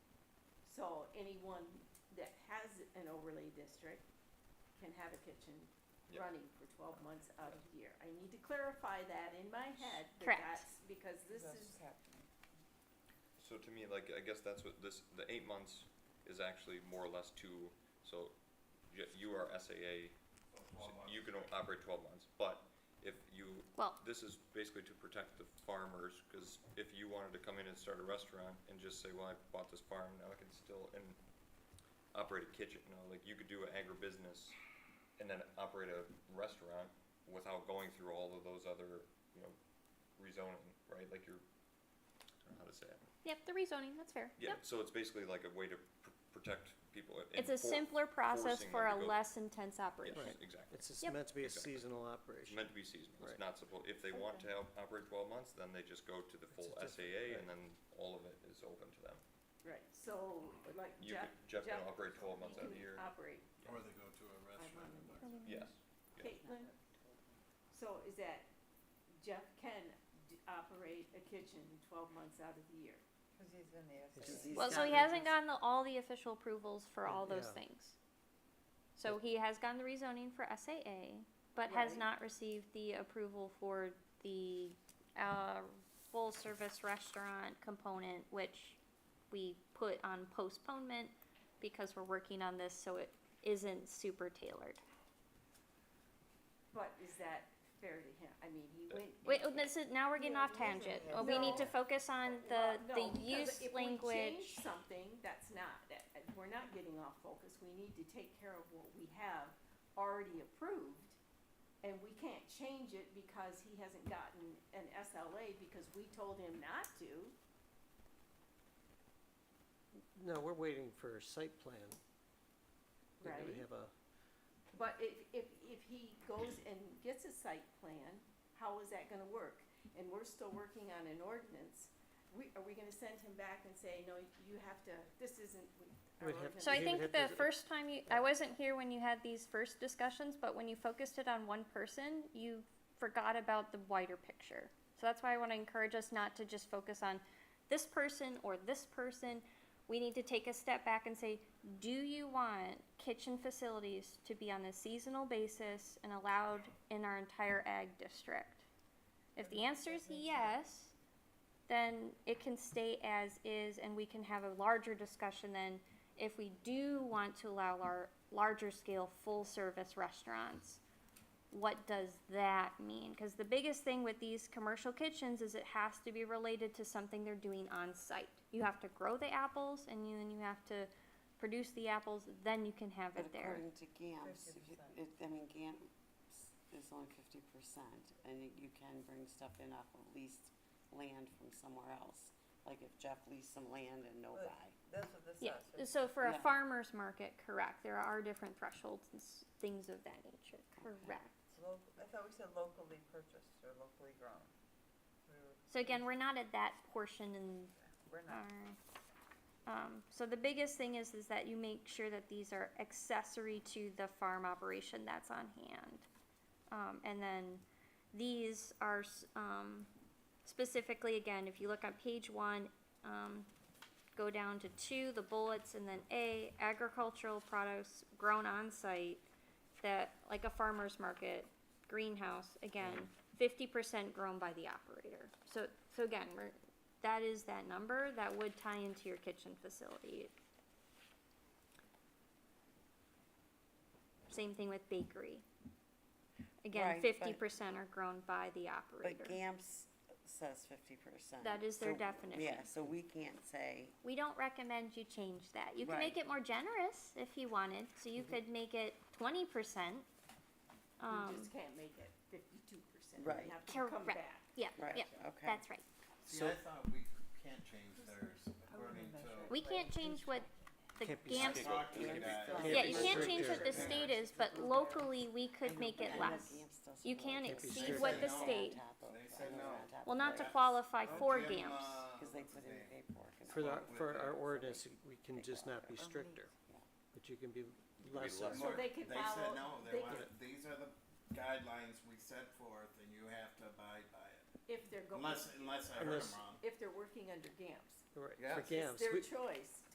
anyone that has an overlay district can have a kitchen Yep. running for twelve months out of the year. I need to clarify that in my head, that Correct. that's, because this That's is, what's happening. So to me, like, I guess that's what this, the eight months is actually more or less two, so y- you are SAA, so you can o- operate twelve months, but if you, Well- this is basically to protect the farmers, cause if you wanted to come in and start a restaurant and just say, well, I bought this farm, now I can still, and operate a kitchen, you know, like, you could do an agribusiness and then operate a restaurant without going through all of those other, you know, rezoning, right, like you're, I don't know how to say it. Yep, the rezoning, that's fair. Yeah, Yep. so it's basically like a way to pr- protect people. and It's a for- simpler process forcing for them to a go- less intense Yes, operation. exactly. It's just Yep. meant to be a Exactly. seasonal It's operation. meant to be seasonal. It's Right. not supposed, if they want to help operate twelve months, then they just go to the full a different- SAA right. and then all of it is open to them. right, so, like You, Jeff, could- Jeff can Jeff, operate twelve months you out of can the year. operate, Or they go to a restaurant. and buy- Yes. Yeah. Caitlin, so is that Jeff can d- operate a kitchen twelve months out of the year? Cause he's in the It's SAA. just these Well, so he hasn't gotten the, all the official approvals for all those Yeah. things. So he has gotten the rezoning for SAA, but has Right. not received the approval for the, uh, full service restaurant component, which we put on postponement because we're working on this, so it isn't super tailored. But is that fair to him? I mean, he That- went. Wait, oh, this is, now we're getting Yeah, off we wasn't tangent. there. Oh, We need to No. focus on the, Well, the Uh, no, because use if we language. change Something, that's not, that, that- we're not getting off focus, we need to take care of what we have already approved. And we can't change it because he hasn't gotten an SLA because we told him not to. No, we're waiting for a site plan. We're Right. gonna have a, But if, if, if he goes and gets a site plan, how is that gonna work? And we're still working on an ordinance, we, are we gonna send him back and say, no, you have to, this isn't. our We'd have to So I They would think have the to- first time you, I wasn't here when you had these first discussions, but when you focused it on one person, you forgot about the wider picture. So that's why I wanna encourage us not to just focus on this person or this person. We need to take a step back and say, do you want kitchen facilities to be on a seasonal basis and allowed in our entire ag district? If the answer is yes, then it can stay as is and we can have a larger discussion then if we do want to allow our larger scale full service restaurants what does that mean because the biggest thing with these commercial kitchens is it has to be related to something they're doing on site you have to grow the apples and you, then you have to produce the apples then you can have But it there according to GAMS, if you- 50%. it, I mean, GAMS is only fifty percent, and you- you can bring stuff in off of leased land from somewhere else. Like if Jeff leased some land in But Novi, That's what this yeah says. so for a Yeah. farmers market correct there are different thresholds and s- things of that nature correct It's local, I thought we said locally purchased or locally grown. We were, so again we're not at that portion in we're not. Alright. Um, so the biggest thing is, is that you make sure that these are accessory to the farm operation that's on hand. Um, and then these are, s- um, specifically, again, if you look on page one, um, go down to two, the bullets, and then A, agricultural products grown on site that, like a farmer's market, greenhouse, again, fifty percent grown by the operator. So, so again, we're, that is that number that would tie into your kitchen facility. Same thing with bakery. Again, Right, but- fifty percent are grown by the but operator. GAMS says fifty percent. That is their definition. Yeah, so we can't say, We don't recommend you change that. You can make Right. it more generous if you wanted, so you could make it twenty percent. We Um, just can't make it fifty-two percent, Right. we have to come Correct. back. yeah, right, yeah, okay. that's right. See, I thought we can't change theirs according measure to. it. We can't change what the Can't be GAMS, strict. Document that. Um, yeah, be you can't strict change what the there. state is, but locally, we could make it I know less. GAMS doesn't You like can't it. Can't be exceed strict. what the They say no. state, On top of- They I say know no. on top well, of not to that, qualify Oh, for Jim, GAMS. uh, Cause they what's put his in name? paperwork. and for the, all. With for the- our ordinance, we can just not be stricter, Yeah. but you can be lesser. less. So they can follow- said no, they they want, these are the guidelines we set forth and you have to abide by it. If they're going, Unless, unless I heard them Unless- wrong. if they're working under GAMS. Right, Yeah. for It's GAMS, It's their we- choice.